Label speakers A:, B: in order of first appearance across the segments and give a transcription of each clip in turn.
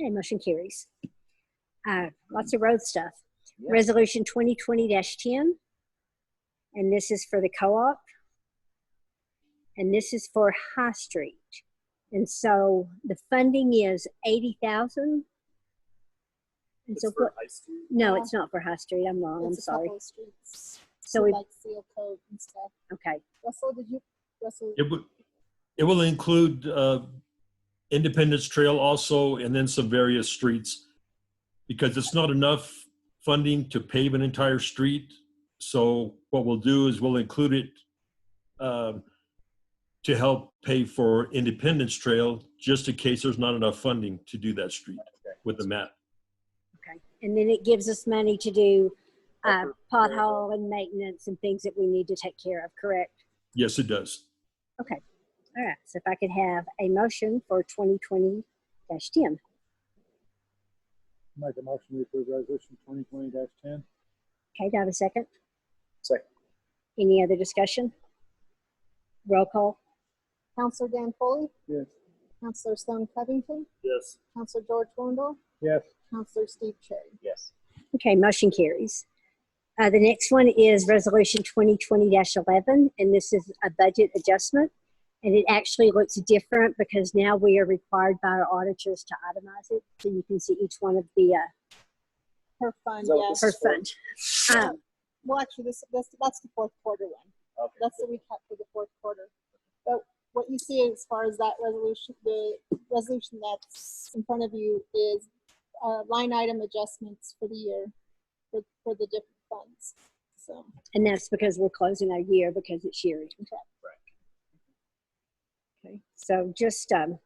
A: Okay, motion carries. Uh, Lots of road stuff.
B: Yeah.
A: Resolution 2020-10, and this is for the co-op. And this is for High Street. And so the funding is 80,000. And
B: It's
A: so,
B: for
A: what-
B: high school.
A: no, it's not for High Street. I'm wrong, I'm
C: It's a
A: sorry.
C: couple of streets,
A: So we,
C: Like seal code and stuff.
A: okay,
C: Russell, did you, Russell?
D: It would, it will include uh, Independence Trail also, and then some various streets. Because it's not enough funding to pave an entire street. So what we'll do is we'll include it um, to help pay for Independence Trail, just in case there's not enough funding to do that street with the map.
A: okay. And then it gives us money to do uh,
B: Upper Prairie Dog.
A: pothole and maintenance and things that we need to take care of, correct?
D: Yes, it does.
A: All right, so if I could have a motion for 2020 10.
E: Make a motion to approve resolution twenty twenty ten.
A: Okay, do I have a second?
B: Second.
A: Any other discussion? Roll call?
C: Counselor Dan Foley,
E: Yes.
C: Counselor Stone Covington,
B: Yes.
C: Counselor George Wondell,
E: Yes.
C: Counselor Steve Cherry.
B: Yes.
A: Okay, motion carries. Uh, the next one is Resolution 2020 11, and this is a budget adjustment. And it actually looks different because now we are required by our auditors to itemize it. So you can see each one of the, uh,
C: Her fund,
B: Is that what
C: yeah.
B: this
A: per
B: Sure.
A: fund. Um,
C: Well, actually, this, that's, that's the fourth quarter one.
B: Okay.
C: That's the recap for the fourth quarter. But what you see as far as that resolution, the resolution that's in front of you is uh, line item adjustments for the year for, for the different funds. So,
A: And that's because we're closing our year because it's yearly. Okay, so just, um,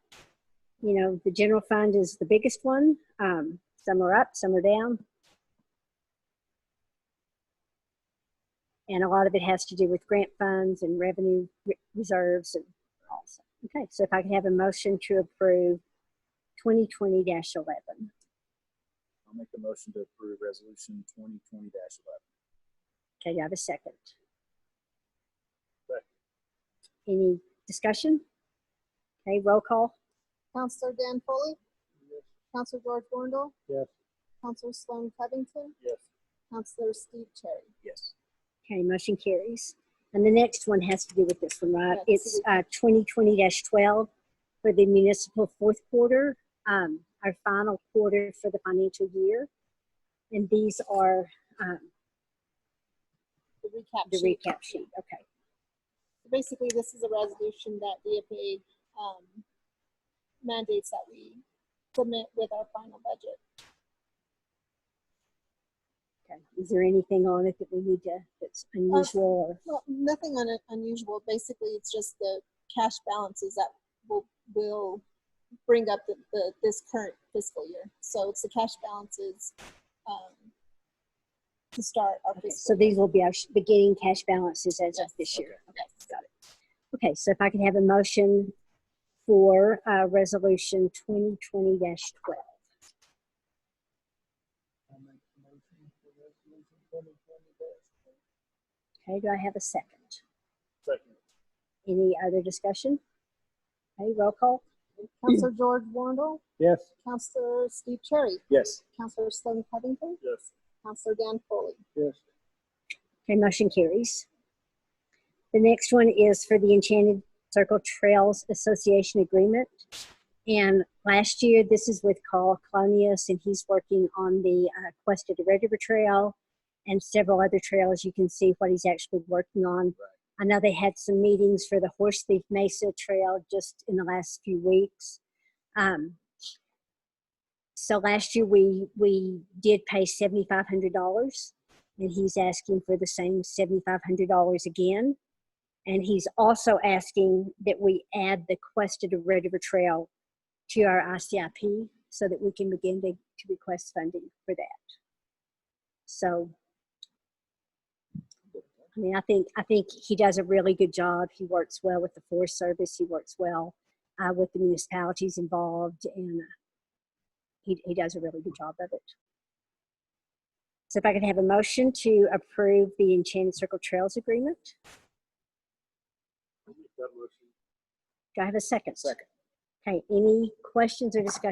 A: you know, the general fund is the biggest one. Um, some are up, some are down. And a lot of it has to do with grant funds and revenue re- reserves and all also. Okay, so if I could have a motion to approve twenty twenty eleven.
B: I'll make a motion to approve resolution twenty twenty eleven.
A: Okay, do I have a second?
B: Second.
A: Any discussion? Okay, roll call.
C: Counselor Dan Foley, Counselor George Wondell,
E: Yes.
C: Counselor Sloan Covington,
B: Yes.
C: Counselor Steve Cherry.
B: Yes.
A: Okay, motion carries. And the next one has to do with this one, right?
C: Yes.
A: It's uh, 2020-12 for the municipal fourth quarter, um, our final quarter for the financial year. And these are um,
C: The recap
A: the
C: sheet.
A: recap sheet, okay.
C: basically this is a resolution that the FAA um, mandates that we submit with our final budget.
A: Okay. Is there anything on it that we need to, that's
C: Uh,
A: unusual?
C: Well, nothing un- unusual. Basically, it's just the cash balances that will will bring up the, the this current fiscal year. So it's the cash balances um, to start our
A: or-
C: fiscal.
A: So these will be our sh- beginning cash balances as of
C: Yes,
A: this year.
C: year. Yes.
A: Okay, so if I could have a motion for uh, Resolution 2020-12.
E: I'll make a motion for resolution twenty twenty ten.
A: Okay, do I have a second?
B: Second.
A: Any other discussion? Okay, roll call.
C: Counselor George Wondell,
E: Yes.
C: Counselor Steve Cherry,
B: Yes.
C: Counselor Sloan Covington,
B: Yes.
C: Counselor Dan Foley.
E: Yes.
A: Okay, motion carries. The next one is for the Enchanted Circle Trails Association Agreement. And last year, this is with Carl Colonius, and he's working on the uh, Quest of the Red River Trail and several other trails. You can see what he's actually working on. I know they had some meetings for the Horse Thief Mesa Trail just in the last few weeks. Um, so last year, we, we did pay $7,500 and he's asking for the same $7,500 again. And he's also asking that we add the Quest of the Red River Trail to our ICIP so that we can begin to, to request funding for that. So, I mean, I think, I think he does a really good job. He works well with the Forest Service. He works well uh, with the municipalities involved and uh, he, he does a really good job of it. So if I could have a motion to approve the Enchanted Circle Trails Agreement? Do I have a second?
B: Second.
A: Okay, any questions or discussion?